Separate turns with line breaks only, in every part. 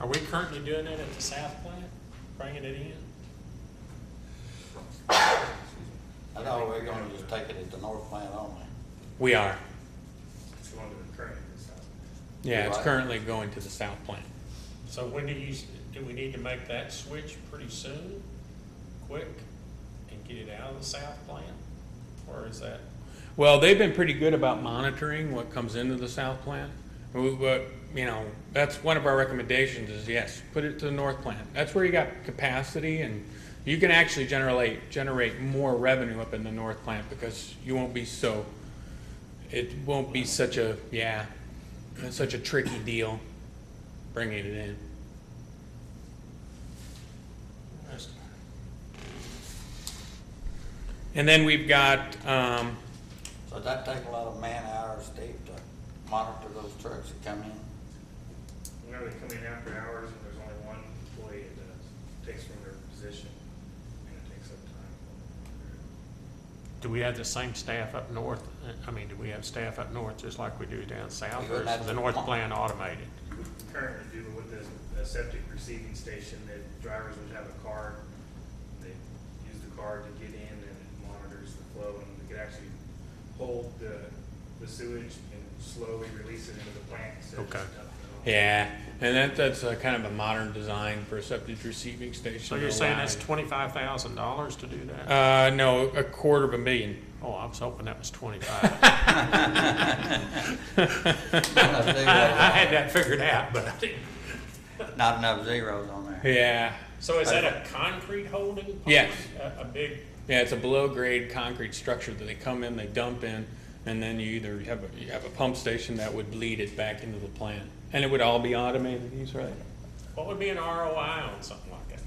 Are we currently doing it at the south plant, bringing it in?
I thought we were gonna just take it at the north plant only.
We are.
It's one of the current stuff.
Yeah, it's
Right.
currently going to the south plant. So when do you, do we need to make that switch pretty soon, quick, and get it out of the south plant? Or is that? Well, they've been pretty good about monitoring what comes into the south plant. We- But, you know, that's one of our recommendations is yes, put it to the north plant. That's where you got capacity and you can actually generate, generate more revenue up in the north plant because you won't be so, it won't be such a, yeah, it's such a tricky deal bringing it in. And then we've got, um,
So that take a lot of man hours, Steve, to monitor those trucks that come in.
Whenever they come in after hours and there's only one employee, it does- takes from their position and it takes up time.
Do we have the same staff up north? I mean, do we have staff up north just like we do down south?
We
Or
would have
is the
to-
north plant automated?
We Currently do it with the- the septic receiving station, the drivers would have a card. They use the card to get in and it monitors the flow and they could actually hold the, the sewage and slowly release it into the plant. instead of
Okay.
just dumping it all.
yeah, and that, that's a kind of a modern design for a septic receiving station.
So you're saying that's
Allowing-
twenty-five thousand dollars to do that?
Uh, no, a quarter of a million.
Oh, I was hoping that was twenty-five. I, I had that figured out, but I didn't.
Not enough zeros on there.
Yeah,
So is that a concrete holding pond?
Yes.
A, a big,
yeah, it's a below-grade concrete structure that they come in, they dump in, and then you either have a, you have a pump station that would lead it back into the plant. And it would all be automated, he's right.
what would be an ROI on something like that?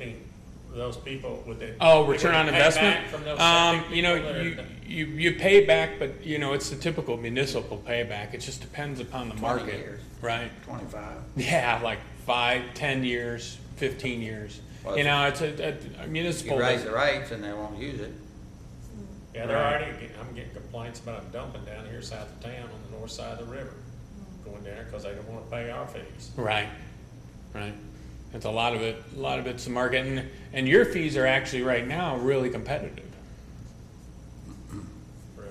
I mean, those people, would they?
Oh,
would
return
they
on
pay
investment?
back From those
Um,
septic
you know,
people that are-
you, you, you pay back, but, you know, it's the typical municipal payback, it just depends upon the
20
market,
years.
right?
Twenty-five.
Yeah, like five, ten years, fifteen years,
Well,
you
it's-
know, it's a, a- a municipal.
You raise the rates and they won't use it.
Yeah, they're
Right.
already, get- I'm getting complaints about them dumping down here south of town on the north side of the river, going down there because they don't want to pay our fees.
Right, right. It's a lot of it, a lot of it's the market, and, and your fees are actually right now really competitive.
Really?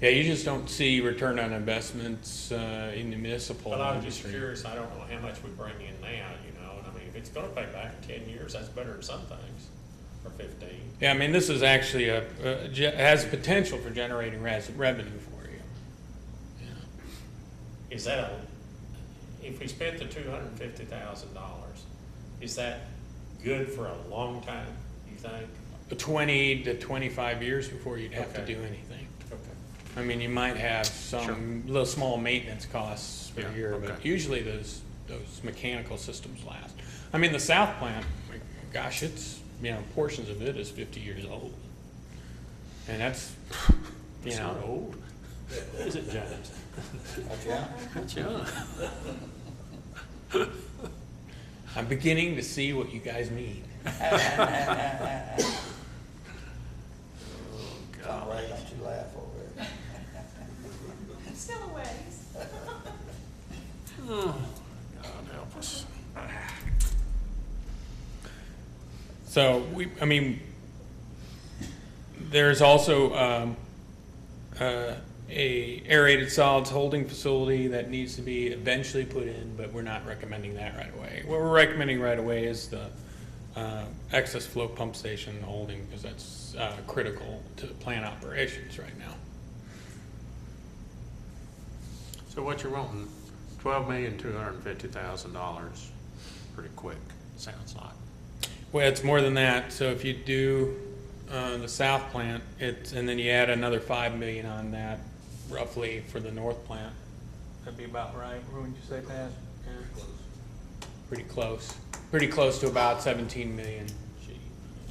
Yeah, you just don't see return on investments, uh, in the municipal
But I'm just
industry.
curious, I don't know how much we bring in now, you know, and I mean, if it's gonna pay back in ten years, that's better than some things, or fifteen.
Yeah, I mean, this is actually a, a- ge- has potential for generating res- revenue for you.
Is that a, if we spent the two hundred and fifty thousand dollars, is that good for a long time, you think?
Twenty to twenty-five years before you'd have to
Okay.
do anything.
Okay.
I mean, you might have some little small maintenance costs per
Yeah,
year, but
okay.
usually those, those mechanical systems last. I mean, the south plant, like, gosh, it's, you know, portions of it is fifty years old. And that's, you
It's
know.
not old. Is it, James?
Yeah.
It's young.
I'm beginning to see what you guys mean.
Don't worry, don't you laugh over it.
Still a ways.
God help us.
So we, I mean, there's also um, uh, a aerated solids holding facility that needs to be eventually put in, but we're not recommending that right away. What we're recommending right away is the uh, excess flow pump station holding because that's uh, critical to plant operations right now.
So what you're wanting, twelve million, two hundred and fifty thousand dollars, pretty quick, sounds like.
Well, it's more than that. So if you do uh, the south plant, it's and then you add another five million on that, roughly for the north plant. That'd be about right. What would you say, Pat? Yeah. Pretty close. Pretty close to about seventeen million.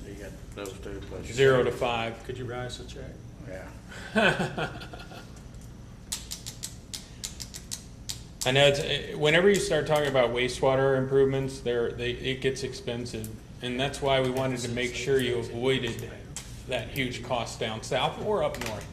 You got those two plus.
Zero to five.
Could you write us a check?
Yeah.
I know it's, eh, whenever you start talking about wastewater improvements, there they it gets expensive, and that's why we wanted to make sure you avoided that huge cost down south or up north.